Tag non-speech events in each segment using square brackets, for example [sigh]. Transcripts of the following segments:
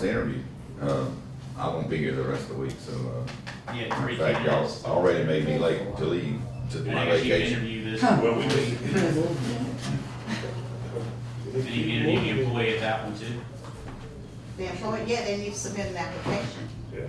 the interview. Uh, I won't be here the rest of the week, so, uh, You had three in fact, y'all candidates. already made me late to leave to And I my guess you can vacation. interview this, Well, we just. did you interview the employee at that one too? The employee, yeah, they need to submit an application, Yeah.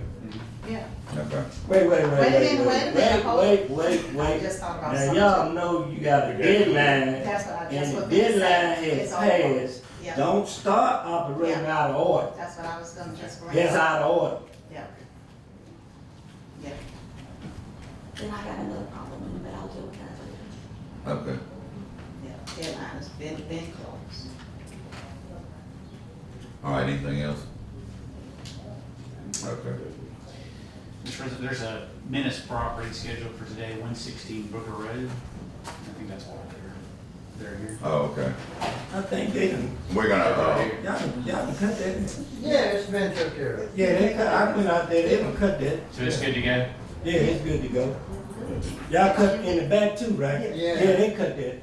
yeah. Okay. Wait, wait, wait, Wait a wait, minute, wait, wait a minute, wait, hold. wait, wait, I wait. just thought about Now, something. y'all know you got a deadline, That's what I, that's and the what they said. deadline has It's on board. passed. Yeah, Don't start operating Yeah. out of order. that's what I was gonna just bring That's up, out of order. yeah. Yeah, Then I got another problem with it, but I'll deal with that later. Okay. yeah, deadline has been, been closed. All right, anything else? Okay. Mr. President, there's a Menace property scheduled for today, one sixteen Booker Road. I think that's why they're, they're here. Oh, okay. I think they done, We're gonna, uh, y'all, done- y'all done cut that. Yeah, it's been took care of. Yeah, they cut, I went out there, they done cut that. So it's good to go? Yeah, it's good to go. Y'all cut in the back too, right? Yeah. Yeah, they cut that.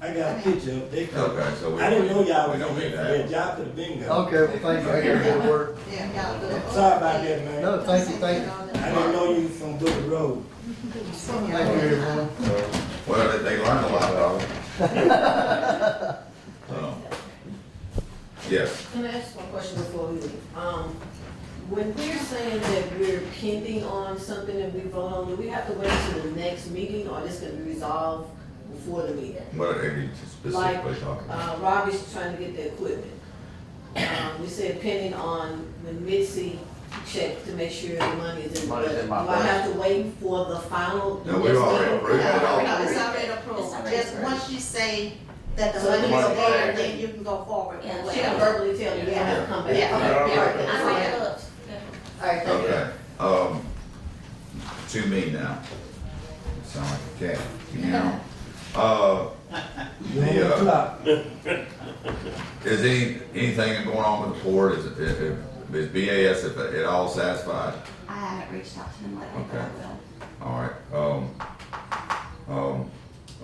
I got a picture of, they cut. okay, so we. I didn't know y'all we was don't in need here to for have- that, y'all could've been gone. Okay, well, thank you, I got good work. Yeah, y'all do it. Sorry about that, man. No, Oh, thank you, thank you. I didn't know you was from Booker Road. Thank you, everyone. Well, they, they learned a lot, [laughs] though. So, Yes, Can I ask one question before we leave? Um, when we're saying that we're pending on something that we vote on, do we have to wait until the next meeting or this can be resolved before the meeting? what are you specifically talking about? Uh, Robbie's trying to get the equipment. Um, we said pending on when Mitzi checked to make sure the money is in. the Money's in my budget. Do I have budget. to wait for the final? No, we've already approved it all. No, it's already approved, It's already just approved. once you say that the So money is it's there, approved. then you can go forward. with Yeah. She can whatever. verbally tell you, you have to come back. Yeah. Okay, all right, I that's might fine. have looked. All right, thank you. Okay, um, to me now. Sound like a cat, you know? Uh, You're on Yeah. the clock. is any, anything going on with the board? Is, is, is BAS if at all satisfied? I haven't reached out to him lately, but I Okay. will. All right, um, um,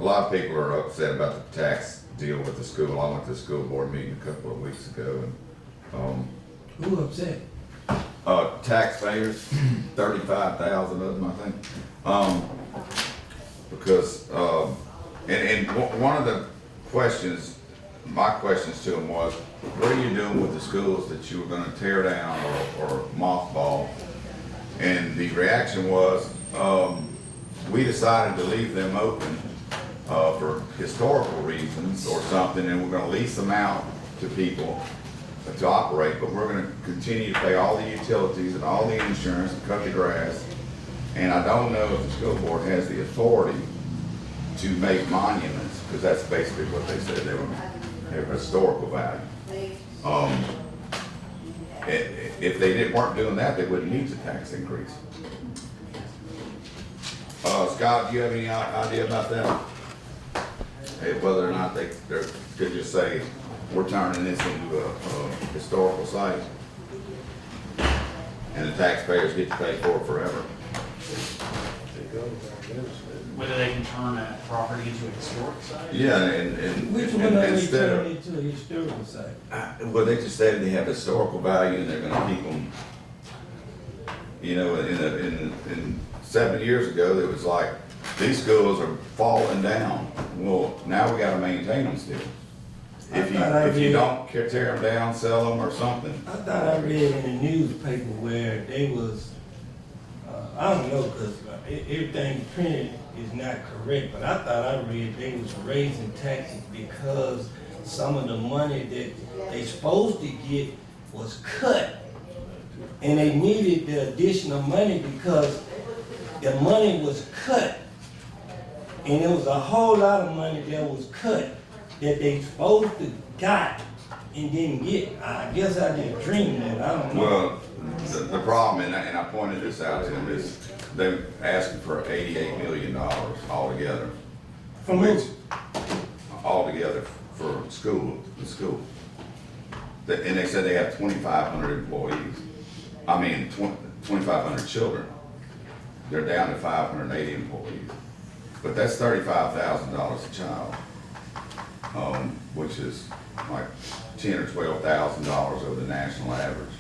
a lot of people are upset about the tax deal with the school. I went to the school board meeting a couple of weeks ago and, um, Who upset? uh, taxpayers, [clears throat] thirty-five thousand of them, I think. Um, because, um, and, and o- one of the questions, my questions to them was, what are you doing with the schools that you were gonna tear down or, or mothball? And the reaction was, um, we decided to leave them open, uh, for historical reasons or something, and we're gonna lease them out to people to operate, but we're gonna continue to pay all the utilities and all the insurance and cut the grass. And I don't know if the school board has the authority to make monuments, because that's basically what they said, they were, they were historical value. Um, i- i- if they didn't, weren't doing that, they wouldn't need the tax increase. Uh, Scott, do you have any i- idea about that? Hey, whether or not they, they're, could just say, we're turning this into a, a historical site. And the taxpayers get to pay for it forever. Whether they can turn that property into a historic site? Yeah, and, and. Which and- one are they instead of- turning into a historical site? I- Uh, Well, they just said they have historical value and they're gonna keep them. You know, in, a- in, in seven years ago, it was like, these schools are falling down. Well, now we gotta maintain them still. If you, I thought I if you read- don't ca- tear them down, sell them or something. I thought I read in the newspaper where they was, uh, I don't know, cause e- everything printed is not correct, but I thought I read they was raising taxes because some of the money that they supposed to get was cut. And they needed the additional money because the money was cut. And it was a whole lot of money that was cut that they supposed to got and didn't get. I guess I just dreamed that, I don't know. Well, the, the problem, and I, and I pointed this out to them, is they're asking for eighty-eight million dollars altogether. From who? Which, Altogether for school, the school. The- And they said they have twenty-five hundred employees, I mean, twenty-five hundred children. They're down to five hundred and eighty employees, but that's thirty-five thousand dollars a child. Um, which is like ten or twelve thousand dollars over the national average.